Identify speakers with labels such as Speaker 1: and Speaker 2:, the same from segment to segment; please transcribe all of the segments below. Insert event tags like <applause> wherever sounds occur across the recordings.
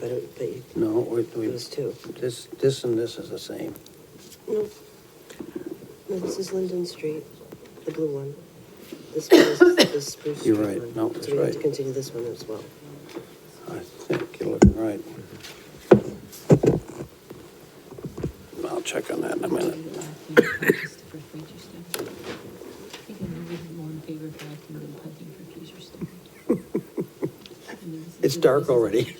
Speaker 1: but it, they,
Speaker 2: No, we, we,
Speaker 1: those two.
Speaker 2: this, this and this is the same.
Speaker 1: No. No, this is Linden Street, the blue one. <coughs> This one is the Spruce Street
Speaker 2: You're
Speaker 1: one.
Speaker 2: right. No, that's
Speaker 1: So we have to
Speaker 2: right.
Speaker 1: continue this one as well.
Speaker 2: I think you're looking right. I'll check on that in a minute. It's dark already.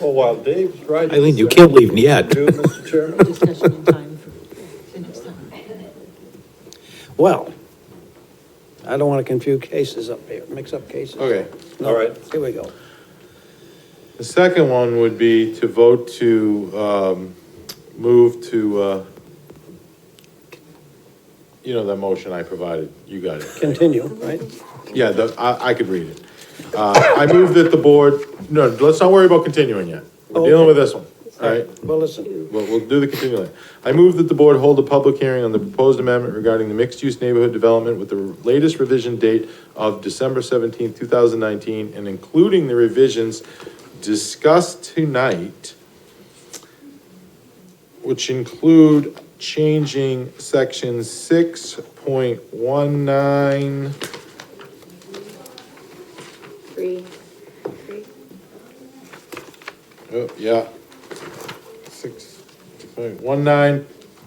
Speaker 3: Well, while Dave's right.
Speaker 4: Eileen, you can't leave yet.
Speaker 3: Do, Mr. Chairman?
Speaker 2: Well, I don't want to confuse cases up here, mix up cases.
Speaker 3: Okay,
Speaker 2: No,
Speaker 3: all right.
Speaker 2: Here we go.
Speaker 3: The second one would be to vote to, um, move to, uh, you know, that motion I provided, you got it.
Speaker 2: Continue, right?
Speaker 3: Yeah, the, I, I could read it. Uh, I move that the board, no, let's not worry about continuing yet. We're dealing with this one, all right?
Speaker 2: Well, listen,
Speaker 3: Well, we'll do the continuing. I move that the board hold a public hearing on the proposed amendment regarding the mixed-use neighborhood development with the latest revision date of December seventeenth, two thousand nineteen, and including the revisions discussed tonight, which include changing section six point one nine,
Speaker 5: Three, three,
Speaker 3: oh, yeah, six point one nine,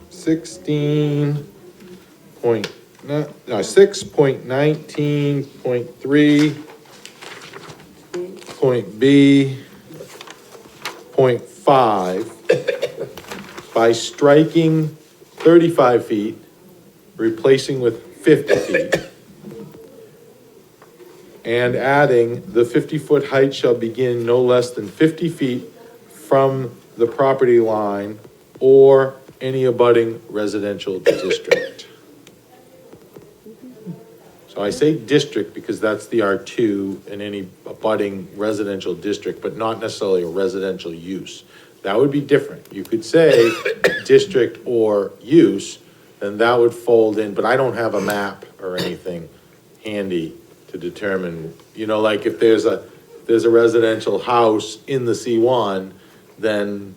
Speaker 3: sixteen, point, no, no, six point nineteen, point three, point B, point five, by striking thirty-five feet, replacing with fifty feet, and adding, the fifty-foot height shall begin no less than fifty feet from the property line or any abutting residential district. So I say district because that's the R two and any abutting residential district, but not necessarily a residential use. That would be different. You could say <coughs> district or use, then that would fold in, but I don't have a map or anything handy to determine, you know, like if there's a, there's a residential house in the C one, then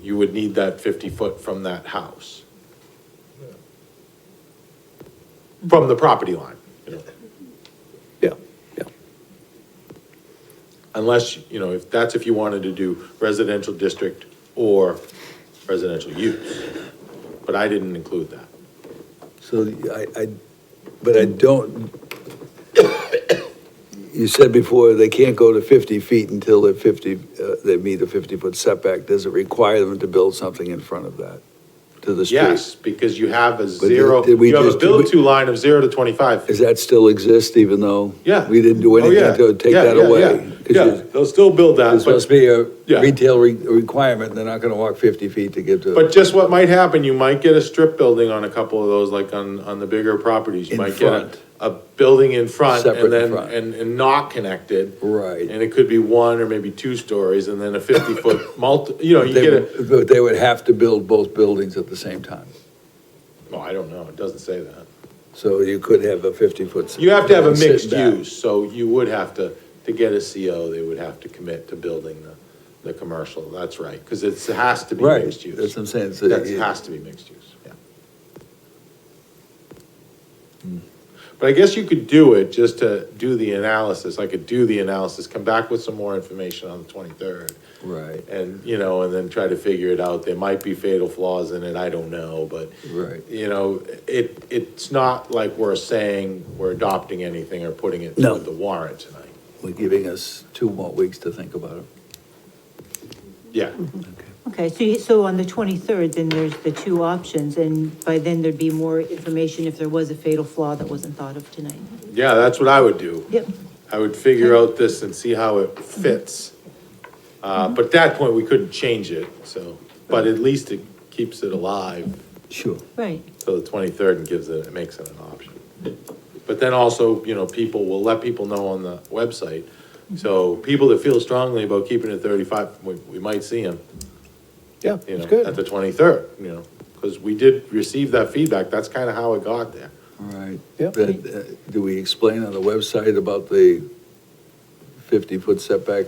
Speaker 3: you would need that fifty foot from that house. From the property line, you know.
Speaker 2: yeah, yeah.
Speaker 3: Unless, you know, if, that's if you wanted to do residential district or residential use. But I didn't include that.
Speaker 6: So I, I, but I don't, you said before, they can't go to 50 feet until they're 50, uh, they meet a 50-foot setback. Does it require them to build something in front of that, to the street?
Speaker 3: Yes, because you have a
Speaker 6: did-
Speaker 3: zero,
Speaker 6: did we
Speaker 3: you have a
Speaker 6: just- did we-
Speaker 3: build-to line of zero to twenty-five.
Speaker 6: Does that still exist even though?
Speaker 3: Yeah.
Speaker 6: We didn't do
Speaker 3: Oh, yeah.
Speaker 6: anything to take
Speaker 3: Yeah,
Speaker 6: that
Speaker 3: yeah,
Speaker 6: away?
Speaker 3: yeah.
Speaker 6: 'Cause
Speaker 3: Yeah,
Speaker 6: you-
Speaker 3: they'll still build that,
Speaker 6: There's supposed
Speaker 3: but,
Speaker 6: to be a
Speaker 3: Yeah.
Speaker 6: retail re- requirement, they're not gonna walk 50 feet to get to.
Speaker 3: but just what might happen, you might get a strip building on a couple of those, like on, on the bigger properties. You
Speaker 6: In
Speaker 3: might get a,
Speaker 6: front.
Speaker 3: a building in front
Speaker 6: Separate in
Speaker 3: and then,
Speaker 6: front.
Speaker 3: and, and not connected.
Speaker 6: Right.
Speaker 3: And it could be one or maybe two stories and then a
Speaker 6: <laughs>
Speaker 3: fifty-foot multi, you know, you
Speaker 6: They
Speaker 3: get a,
Speaker 6: would- But they would have to build both buildings at the same time.
Speaker 3: well, Oh, I don't know, it doesn't say that.
Speaker 6: So you could have a 50-foot.
Speaker 3: You have to have a
Speaker 6: sit
Speaker 3: mixed
Speaker 6: back.
Speaker 3: use, so you would have to, to get a CO, they would have to commit to building the, the commercial, that's right, because it's, it has to be
Speaker 6: Right,
Speaker 3: mixed use.
Speaker 6: that's what I'm saying, so
Speaker 3: That
Speaker 6: you-
Speaker 3: has to be mixed use, yeah. Hmm. But I guess you could do it just to do the analysis, I could do the analysis, come back with some more information on the twenty-third,
Speaker 6: Right,
Speaker 3: and, you know, and then try to figure it out, there might be fatal flaws in it, I don't know, but
Speaker 6: right.
Speaker 3: you know, it, it's not like we're saying we're adopting anything or putting it
Speaker 6: No.
Speaker 3: through the warrant tonight.
Speaker 6: We're giving us two more weeks to think about
Speaker 3: Yeah,
Speaker 6: it.
Speaker 7: Okay, so, you- so on the 23rd, then there's the two options, and by then there'd be more information if there was a fatal flaw that wasn't thought of tonight.
Speaker 3: yeah, that's what I would do.
Speaker 7: Yep,
Speaker 3: I would figure out this and see how it fits.
Speaker 2: Mm-hmm.
Speaker 3: Uh, but at that point, we couldn't change it, so, but at least it keeps it alive
Speaker 6: Sure.
Speaker 7: right.
Speaker 3: till the twenty-third and gives it, it makes it an option. But then also, you know, people will let people know on the website.
Speaker 2: Mm-hmm.
Speaker 3: So people that feel strongly about keeping it thirty-five, we, we might see them.
Speaker 2: Yeah,
Speaker 3: you
Speaker 2: it's
Speaker 3: know, at
Speaker 2: good.
Speaker 3: the twenty-third, you know, because we did receive that feedback, that's kind of how it got there.
Speaker 6: All right.
Speaker 2: Yep.
Speaker 6: Then, uh, Do we explain on the website about the 50-foot setback